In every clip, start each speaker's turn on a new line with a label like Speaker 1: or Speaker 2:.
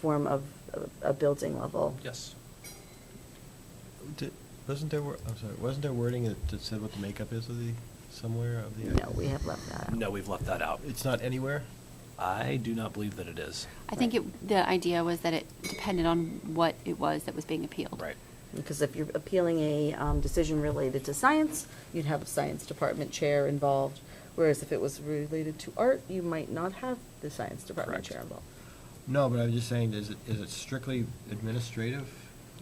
Speaker 1: form of a- a building level.
Speaker 2: Yes.
Speaker 3: Di- Wasn't there, wor- I'm sorry, wasn't there wording that that said what the makeup is of the, somewhere of the?
Speaker 1: No, we have left that out.
Speaker 2: No, we've left that out.
Speaker 3: It's not anywhere?
Speaker 2: I do not believe that it is.
Speaker 4: I think it, the idea was that it depended on what it was that was being appealed.
Speaker 2: Right.
Speaker 1: Because if you're appealing a um, decision related to science, you'd have a science department chair involved. Whereas if it was related to art, you might not have the science department
Speaker 2: Correct.
Speaker 1: chair involved.
Speaker 3: No, but I was just saying, is it, is it strictly administrative?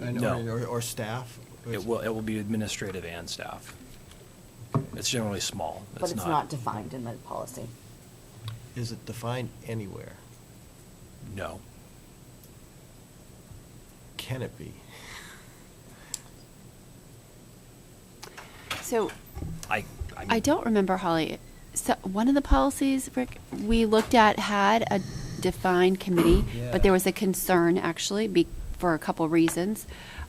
Speaker 3: I know,
Speaker 2: No.
Speaker 3: Or, or staff?
Speaker 2: It will, it will be administrative and staff. It's generally small.
Speaker 1: But it's not defined in the policy.
Speaker 3: Is it defined anywhere?
Speaker 2: No.
Speaker 3: Can it be?
Speaker 4: So
Speaker 2: I,
Speaker 4: I don't remember, Holly, so one of the policies, Rick, we looked at had a defined committee, but
Speaker 3: Yeah.
Speaker 4: there was a concern actually be, for a couple reasons.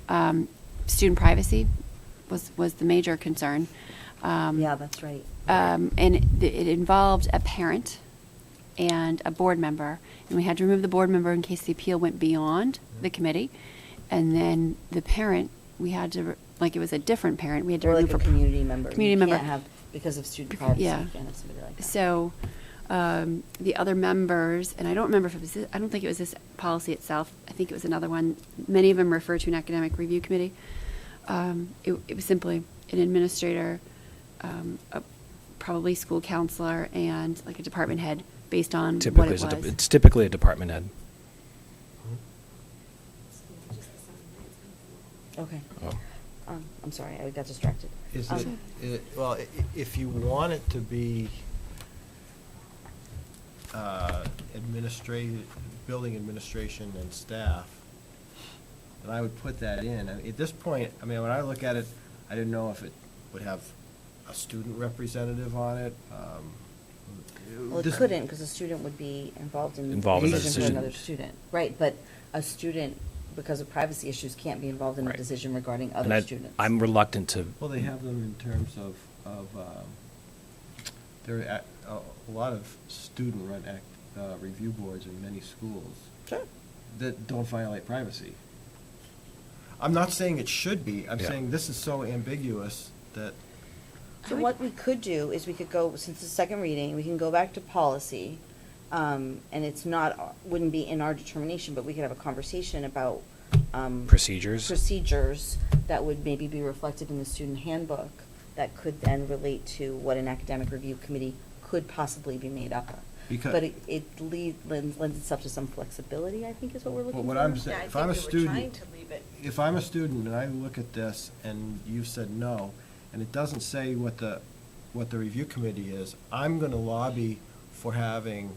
Speaker 4: Um, student privacy was, was the major concern. Um,
Speaker 1: Yeah, that's right.
Speaker 4: um, and it, it involved a parent and a board member, and we had to remove the board member in case the appeal went beyond the committee, and then the parent we had to re- like it was a different parent we had to
Speaker 1: Or like
Speaker 4: remove
Speaker 1: a
Speaker 4: for-
Speaker 1: community member. You
Speaker 4: community member
Speaker 1: can't have- Because of student
Speaker 4: Bec-
Speaker 1: privacy, you
Speaker 4: yeah.
Speaker 1: can't have somebody like that.
Speaker 4: so um, the other members, and I don't remember if it was, thi- I don't think it was this policy itself. I think it was another one. Many of them refer to an academic review committee. Um, it, it was simply an administrator, um, a, probably school counselor, and like a department head based on
Speaker 2: Typically,
Speaker 4: what it
Speaker 2: it's a de-
Speaker 4: was.
Speaker 2: it's typically a department head.
Speaker 3: Hmm?
Speaker 1: Okay.
Speaker 2: Oh.
Speaker 1: Um, I'm sorry, I got distracted.
Speaker 3: Is
Speaker 1: Um,
Speaker 3: it,
Speaker 4: Okay.
Speaker 3: it, well, i- i- if you want it to be administrative, building administration and staff, then I would put that in. I mean, At this point, I mean, when I look at it, I didn't know if it would have a student representative on it. um,
Speaker 1: Well, it
Speaker 3: this-
Speaker 1: couldn't, because a student would be involved in.
Speaker 2: Involved
Speaker 3: in the
Speaker 1: For
Speaker 3: decision.
Speaker 1: another student, right, but a student, because of privacy issues, can't be involved in a
Speaker 2: Right.
Speaker 1: decision regarding
Speaker 2: And
Speaker 1: other
Speaker 2: I-
Speaker 1: students.
Speaker 2: I'm reluctant to.
Speaker 3: Well, they have them in terms of, of, um, there are a- a lot of student-run act, uh, review boards in many schools.
Speaker 1: Sure.
Speaker 3: that don't violate privacy. I'm not saying it should be, I'm
Speaker 2: Yeah.
Speaker 3: saying this is so ambiguous that,
Speaker 1: So what we could do is we could go, since it's the second reading, we can go back to policy. Um, and it's not, wouldn't be in our determination, but we could have a conversation about, um.
Speaker 2: Procedures.
Speaker 1: Procedures that would maybe be reflected in the student handbook that could then relate to what an academic review committee could possibly be made up of.
Speaker 3: Because-
Speaker 1: But it, it lead, lends, lends itself to some flexibility, I think is what we're
Speaker 3: But
Speaker 1: looking for.
Speaker 3: what I'm sa-
Speaker 5: Yeah, I
Speaker 3: if I'm
Speaker 5: think
Speaker 3: a
Speaker 5: we were trying
Speaker 3: student-
Speaker 5: to leave it.
Speaker 3: if I'm a student and I look at this and you've said no, and it doesn't say what the, what the review committee is, I'm gonna lobby for having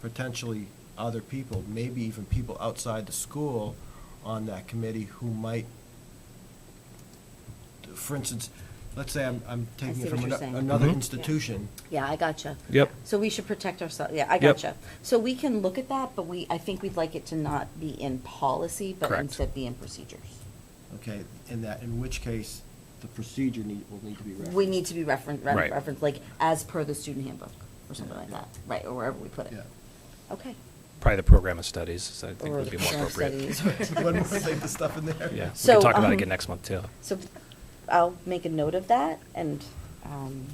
Speaker 3: potentially other people, maybe even people outside the school on that committee who might, for instance, let's say I'm, I'm
Speaker 1: I
Speaker 3: taking
Speaker 1: see
Speaker 3: it from
Speaker 1: what you're
Speaker 3: ano-
Speaker 1: saying.
Speaker 3: another
Speaker 2: Mhm.
Speaker 3: institution.
Speaker 1: Yeah, I gotcha.
Speaker 2: Yep.
Speaker 1: So we should protect ourselves, yeah, I
Speaker 2: Yep.
Speaker 1: gotcha. So we can look at that, but we, I think we'd like it to not be in policy, but
Speaker 2: Correct.
Speaker 1: instead be in procedures.
Speaker 3: Okay, in that, in which case, the procedure need, will need to be referenced.
Speaker 1: We need to be referenced,
Speaker 2: Right.
Speaker 1: referenced, like, as per the student handbook, or something like
Speaker 3: Yeah.
Speaker 1: that, right, or wherever we put it.
Speaker 3: Yeah.
Speaker 1: Okay.
Speaker 2: Probably the program of studies, I think
Speaker 1: Or
Speaker 2: would
Speaker 1: the
Speaker 2: be more
Speaker 1: program of
Speaker 2: appropriate.
Speaker 1: studies.
Speaker 3: One more thing to stuff in there.
Speaker 2: Yeah, we
Speaker 1: So,
Speaker 2: can talk about
Speaker 1: um,
Speaker 2: it again next month, too.
Speaker 1: So I'll make a note of that, and um,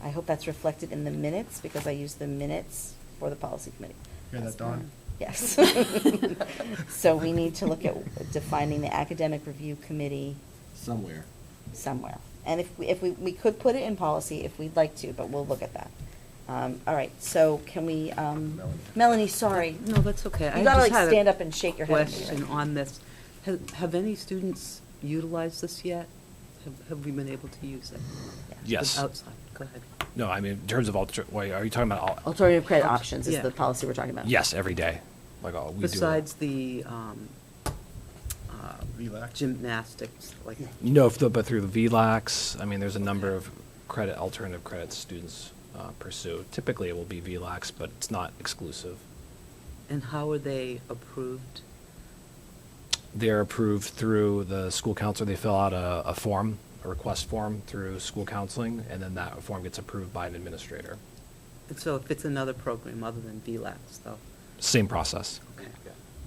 Speaker 1: I hope that's reflected in the minutes, because I use the minutes for the policy committee.
Speaker 3: Hear that, Dawn?
Speaker 1: Yes. So we need to look at defining the academic review committee
Speaker 3: Somewhere.
Speaker 1: somewhere. And if, we- if we, we could put it in policy if we'd like to, but we'll look at that. Um, All right, so can we, um,
Speaker 3: Melanie.
Speaker 1: Melanie, sorry.
Speaker 6: No, that's okay. I
Speaker 1: You gotta
Speaker 6: just
Speaker 1: like
Speaker 6: had a
Speaker 1: stand up and shake your head. at me, right?
Speaker 6: Question on this. Ha- Have any students utilized this yet? Have- Have we been able to use it?
Speaker 2: Yes.
Speaker 6: Outside, go ahead.
Speaker 2: No, I mean, in terms of alter, wait, are you talking about all?
Speaker 1: Alternative credit options is
Speaker 6: Yeah.
Speaker 1: the policy we're talking about.
Speaker 2: Yes, every day, like all, uh, we do.
Speaker 6: Besides the um, uh,
Speaker 3: Relax.
Speaker 6: gymnastics, like,
Speaker 2: No, if the- but through the VLAX, I mean, there's a number of credit, alternative credits students uh, pursue. Typically, it will be VLAX, but it's not exclusive.
Speaker 6: and how are they approved?
Speaker 2: They're approved through the school counselor. They fill out a, a form, a request form through school counseling, and then that form gets approved by an administrator.
Speaker 6: And so if it's another program other than VLAX, though,
Speaker 2: Same process.
Speaker 6: okay.